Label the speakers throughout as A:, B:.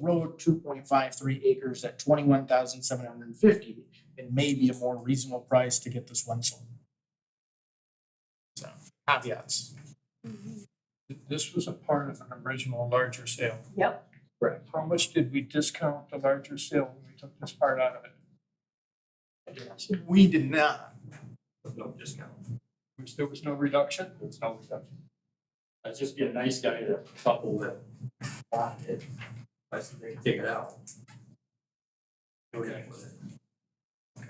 A: road, two point five three acres at twenty-one thousand seven hundred and fifty. It may be a more reasonable price to get this one sold. So caveats.
B: Mm-hmm. This was a part of an original larger sale.
C: Yep.
A: Correct.
B: How much did we discount the larger sale when we took this part out of it?
D: We did not. No discount.
B: Was- There was no reduction?
D: There's no reduction.
E: I'd just be a nice guy to couple that bought it, I said they can take it out. Go ahead with it.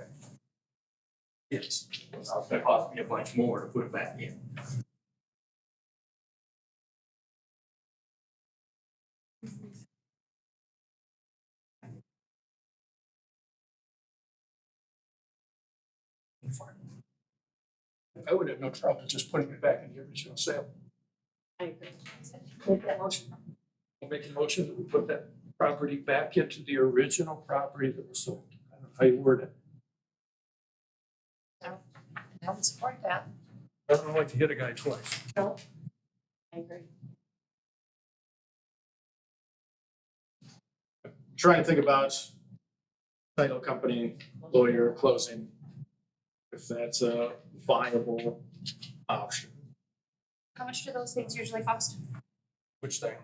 B: Yes.
E: It's gonna cost me a bunch more to put it back in.
B: I would have no trouble just putting it back in the original sale.
C: I agree. Make that motion.
B: I'll make a motion that we put that property back into the original property that was sold. I don't know how you word it.
C: I would support that.
B: I don't like to hit a guy twice.
C: I agree.
A: Trying to think about title company, lawyer, closing. If that's a viable option.
F: How much do those things usually cost?
B: Which thing?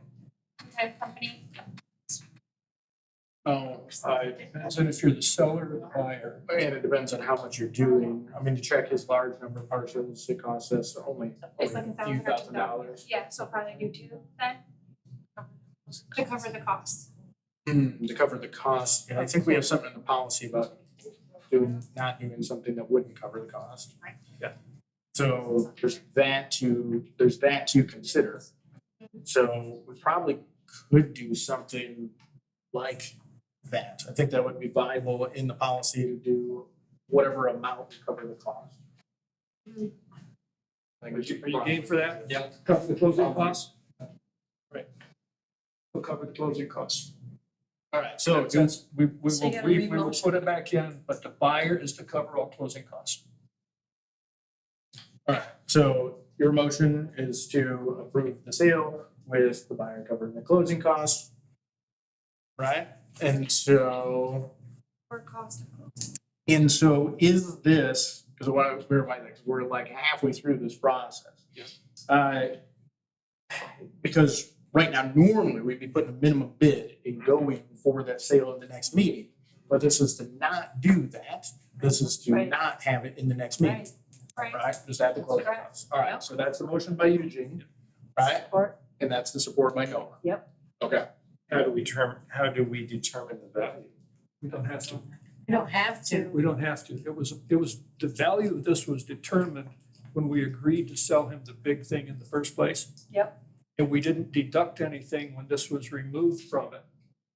F: Type of company?
A: Oh,
B: I, depends on if you're the seller or the buyer.
A: and it depends on how much you're doing. I mean, to check his large number of parcels, it costs us only
F: It's like a
A: a few
F: thousand or
A: thousand
F: two thousand.
A: dollars.
F: Yeah, so probably do two then. To cover the cost.
A: Hmm, to cover the cost. And I think we have something in the policy about doing, not doing something that wouldn't cover the cost.
F: Right.
B: Yeah.
A: So there's that to, there's that to consider. So we probably could do something like that. I think that would be viable in the policy to do whatever amount to cover the cost. I think
B: Are
A: we should
B: you are you game for that?
E: Yeah.
B: Cover the closing costs? Right. We'll cover the closing costs.
A: All right, so
B: So
A: do-
B: that's, we, we
C: So you
B: will,
C: gotta
B: we, we will
C: re-motion.
B: put it back in, but the buyer is to cover all closing costs.
A: Alright, so your motion is to approve the sale with the buyer covering the closing costs. Right, and so,
F: Or cost of
A: and so is this, because I want to clarify that, 'cause we're like halfway through this process. Yes. Uh, because right now, normally we'd be putting a minimum bid and going for that sale in the next meeting. But this is to not do that, this is to
C: Right.
A: not have it in the next meeting.
F: Right.
A: Right, just add the closing
C: Correct.
A: costs. All right, so that's the motion by Eugene, right?
C: Support.
A: And that's the support by Noah.
C: Yep.
A: Okay.
G: How do we term, how do we determine the value?
B: We don't have to,
C: You don't have to.
B: we don't have to. It was, it was, the value of this was determined when we agreed to sell him the big thing in the first place.
C: Yep.
B: And we didn't deduct anything when this was removed from it.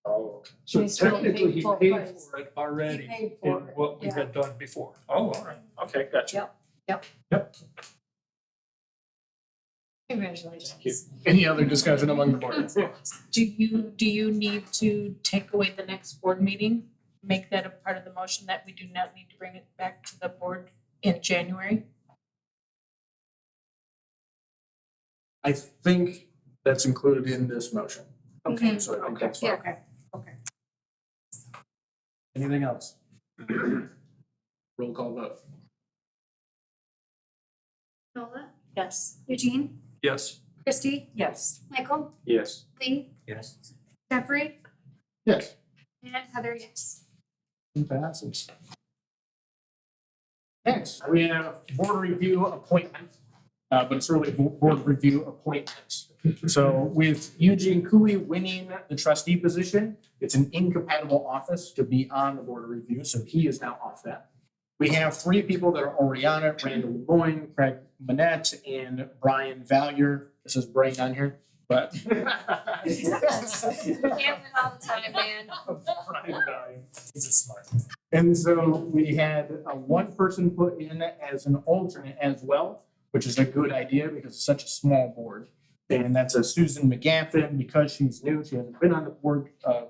G: Oh.
B: So
C: He still paid
B: technically, he
C: full
B: paid
C: price.
B: for it
C: He
B: already
C: paid
B: in
C: for it.
B: what we
C: yeah.
B: had done before.
G: Oh, all right, okay, gotcha.
C: Congratulations.
A: Any other discussion among the board?
H: Do you, do you need to take away the next board meeting? Make that a part of the motion that we do not need to bring it back to the board in January?
A: I think that's included in this motion.
H: Okay.
A: So I think that's fine.
H: Okay.
A: Anything else? Roll call vote.
F: Nola,
C: Yes.
F: Eugene,
B: Yes.
F: Christie,
C: Yes.
F: Michael,
G: Yes.
F: Lee,
G: Yes.
F: Jeffrey,
A: Yes.
F: and Heather, yes.
A: Passes. Next, we have board review appointment, uh, but it's really bo- board review appointments. So with Eugene Cooey winning the trustee position, it's an incompatible office to be on the board of review, so he is now off that. We have three people that are already on it, Randall Lemoyne, Craig Manette, and Brian Valier. This is Brian on here, but.
F: Gambling all the time, man.
A: Brian Valier. He's a smart. And so we had uh, one person put in as an alternate as well, which is a good idea because it's such a small board. And that's a Susan McGaffin, because she's new, she hasn't been on the board, uh,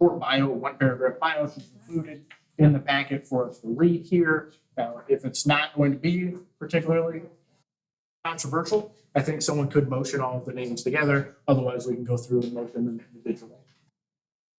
A: short bio, one paragraph bio, she's included in the packet for us to read here. Now, if it's not going to be particularly controversial, I think someone could motion all of the names together, otherwise we can go through and motion them individually.